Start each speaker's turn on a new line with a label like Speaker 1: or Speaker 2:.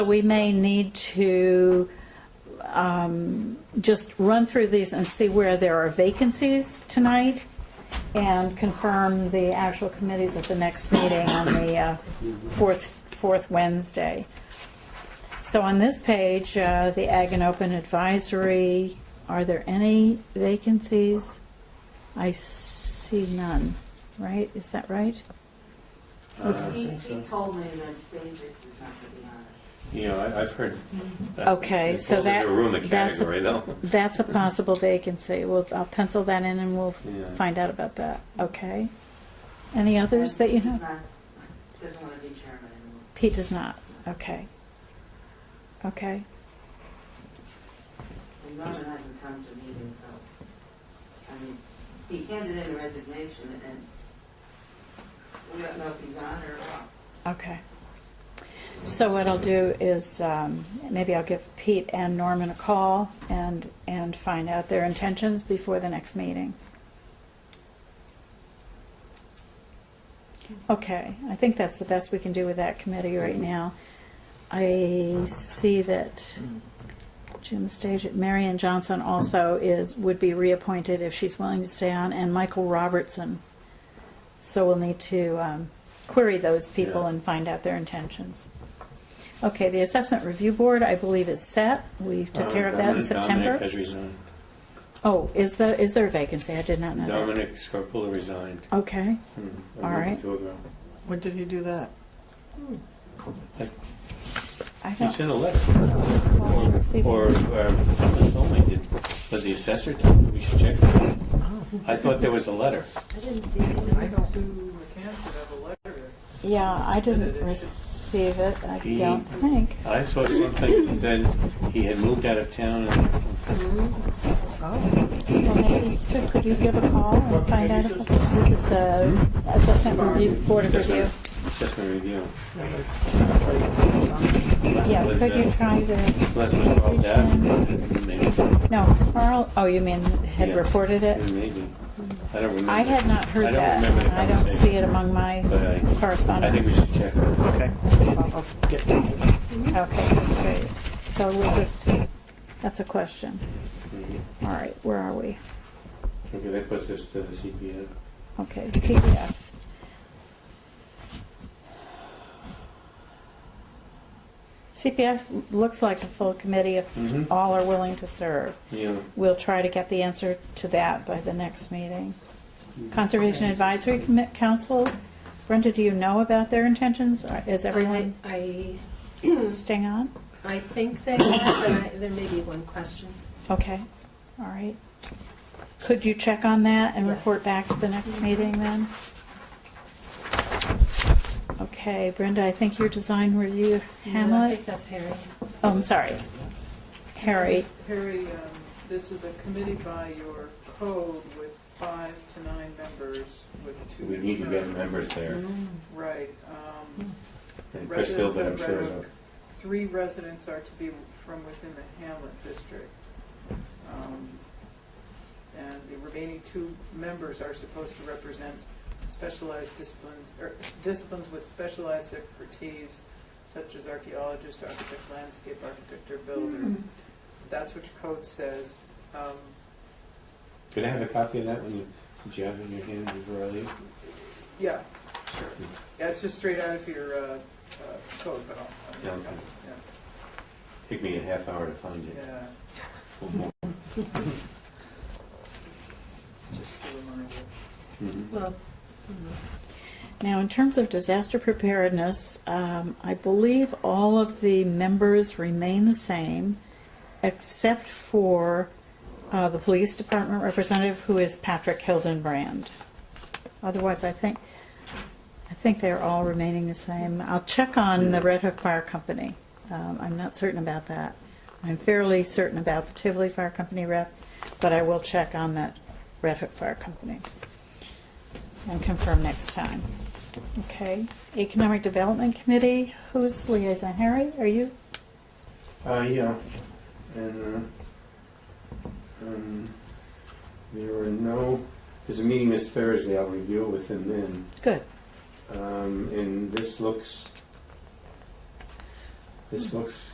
Speaker 1: We may need to um, just run through these and see where there are vacancies tonight and confirm the actual committees at the next meeting on the uh, fourth, fourth Wednesday. So on this page, uh, the Ag and Open Advisory, are there any vacancies? I see none, right? Is that right?
Speaker 2: Uh,
Speaker 1: Looks-
Speaker 3: Uh, He, he told me that Stage is not gonna be on it.
Speaker 2: You know, I- I've heard. that
Speaker 1: Okay,
Speaker 2: it
Speaker 1: so
Speaker 2: falls
Speaker 1: that-
Speaker 2: into a Ruma
Speaker 1: that's a-
Speaker 2: category, though.
Speaker 1: That's a possible vacancy. We'll, I'll pencil that in and we'll
Speaker 2: Yeah.
Speaker 1: find out about that. Okay. Any others that you know?
Speaker 3: He's not, doesn't wanna be chairman anymore.
Speaker 1: Pete does not. Okay. Okay.
Speaker 3: And Norman hasn't come to meetings, so, I mean, he handed in a resignation and we don't know if he's on or off.
Speaker 1: Okay. So what I'll do is um, maybe I'll give Pete and Norman a call and and find out their intentions before the next meeting. Okay, I think that's the best we can do with that committee right now. I see that Jim Stage, Marion Johnson also is would be reappointed if she's willing to stay on, and Michael Robertson. So we'll need to um, query those people
Speaker 2: Yeah.
Speaker 1: and find out their intentions. Okay, the assessment review board, I believe, is set. We took care of that in
Speaker 2: Uh, Dominic-
Speaker 1: September.
Speaker 2: Dominic has resigned.
Speaker 1: Oh, is there is there a vacancy? I did not know that.
Speaker 2: Dominic Scarpullo resigned.
Speaker 1: Okay,
Speaker 2: Hmm, a
Speaker 1: All
Speaker 2: month
Speaker 1: right.
Speaker 2: ago.
Speaker 4: When did he do that?
Speaker 1: I
Speaker 2: He
Speaker 1: don't.
Speaker 2: sent a letter,
Speaker 1: see.
Speaker 2: or or someone told me, did- was the assessor told me we should check?
Speaker 1: Oh.
Speaker 2: I thought there was a letter.
Speaker 4: I don't.
Speaker 1: Yeah, I didn't receive it, I
Speaker 2: He-
Speaker 1: don't think.
Speaker 2: I saw something, that said he had moved out of town, and
Speaker 4: Oh,
Speaker 1: Well, maybe, Sue, could you give a call and find out if it's- this is the
Speaker 2: Hmm?
Speaker 1: assessment review, board of review?
Speaker 2: assessment review.
Speaker 1: Yeah,
Speaker 2: Was,
Speaker 1: could
Speaker 2: uh,
Speaker 1: you try to,
Speaker 2: Les was called that, maybe,
Speaker 1: no, Carl, oh, you mean had
Speaker 2: Yeah.
Speaker 1: reported it?
Speaker 2: maybe. I don't remember.
Speaker 1: I had not
Speaker 2: I
Speaker 1: heard
Speaker 2: don't
Speaker 1: that,
Speaker 2: remember the
Speaker 1: I don't
Speaker 2: conversation.
Speaker 1: see it among my
Speaker 2: But I- I think we
Speaker 1: correspondence.
Speaker 2: should check.
Speaker 4: okay. I'll, I'll get to it.
Speaker 1: Okay, great, so we'll just, that's a question. All right, where are we?
Speaker 2: Mm-hmm. Okay, that puts us to the CPA.
Speaker 1: Okay, CPF. CPF looks like a full committee if
Speaker 2: Mhm.
Speaker 1: all are willing to serve.
Speaker 2: Yeah.
Speaker 1: We'll try to get the answer to that by the next meeting.
Speaker 2: Mhm.
Speaker 1: Conservation Advisory Commi- Council, Brenda, do you know about their intentions? Or Is everyone
Speaker 5: Um, I,
Speaker 1: staying on?
Speaker 5: I think they are, but I, there may be one question.
Speaker 1: Okay, all right. Could you check on that and
Speaker 5: Yes. Mm-hmm.
Speaker 1: report back at the next meeting then? Okay, Brenda, I think your design review,
Speaker 5: I
Speaker 1: Hamlet?
Speaker 5: think that's Harry.
Speaker 1: Oh, I'm sorry. Harry,
Speaker 6: Harry, um, this is a committee by your code with five to nine members with two.
Speaker 2: We need to get members there.
Speaker 6: Mm-hmm. Right. um,
Speaker 2: And Chris Gilbert, I'm sure, is
Speaker 6: Residents of Red Oak, Three residents are to be from within the Hamlet district. Um, And the remaining two members are supposed to represent specialized disciplines, or disciplines with specialized expertise such as archaeologist, architect, landscape architect, or builder. That's what your code says. Um,
Speaker 2: Could I have a copy of that when you, did you have it in your hand before I leave?
Speaker 6: Yeah, sure. Yeah, it's just straight out of your uh, uh, code, but I'll-
Speaker 2: Yeah,
Speaker 6: I'll,
Speaker 2: okay.
Speaker 6: yeah,
Speaker 2: Take me a half hour to find it.
Speaker 6: yeah,
Speaker 2: or more.
Speaker 6: just a reminder.
Speaker 2: Mhm.
Speaker 5: Well,
Speaker 1: now in terms of disaster preparedness, um, I believe all of the members remain the same, except for uh, the police department representative, who is Patrick Hildenbrand. Otherwise, I think, I think they're all remaining the same. I'll check on the Red Hook Fire Company. Um, I'm not certain about that. I'm fairly certain about the Tivoli Fire Company rep, but I will check on that Red Hook Fire Company and confirm next time. Okay. Economic Development Committee, who's liaison? Harry, are you?
Speaker 2: Uh, yeah, and, uh, um, there were no, there's a meeting this Thursday, I'll review it with him then.
Speaker 1: Good.
Speaker 2: Um, and this looks This looks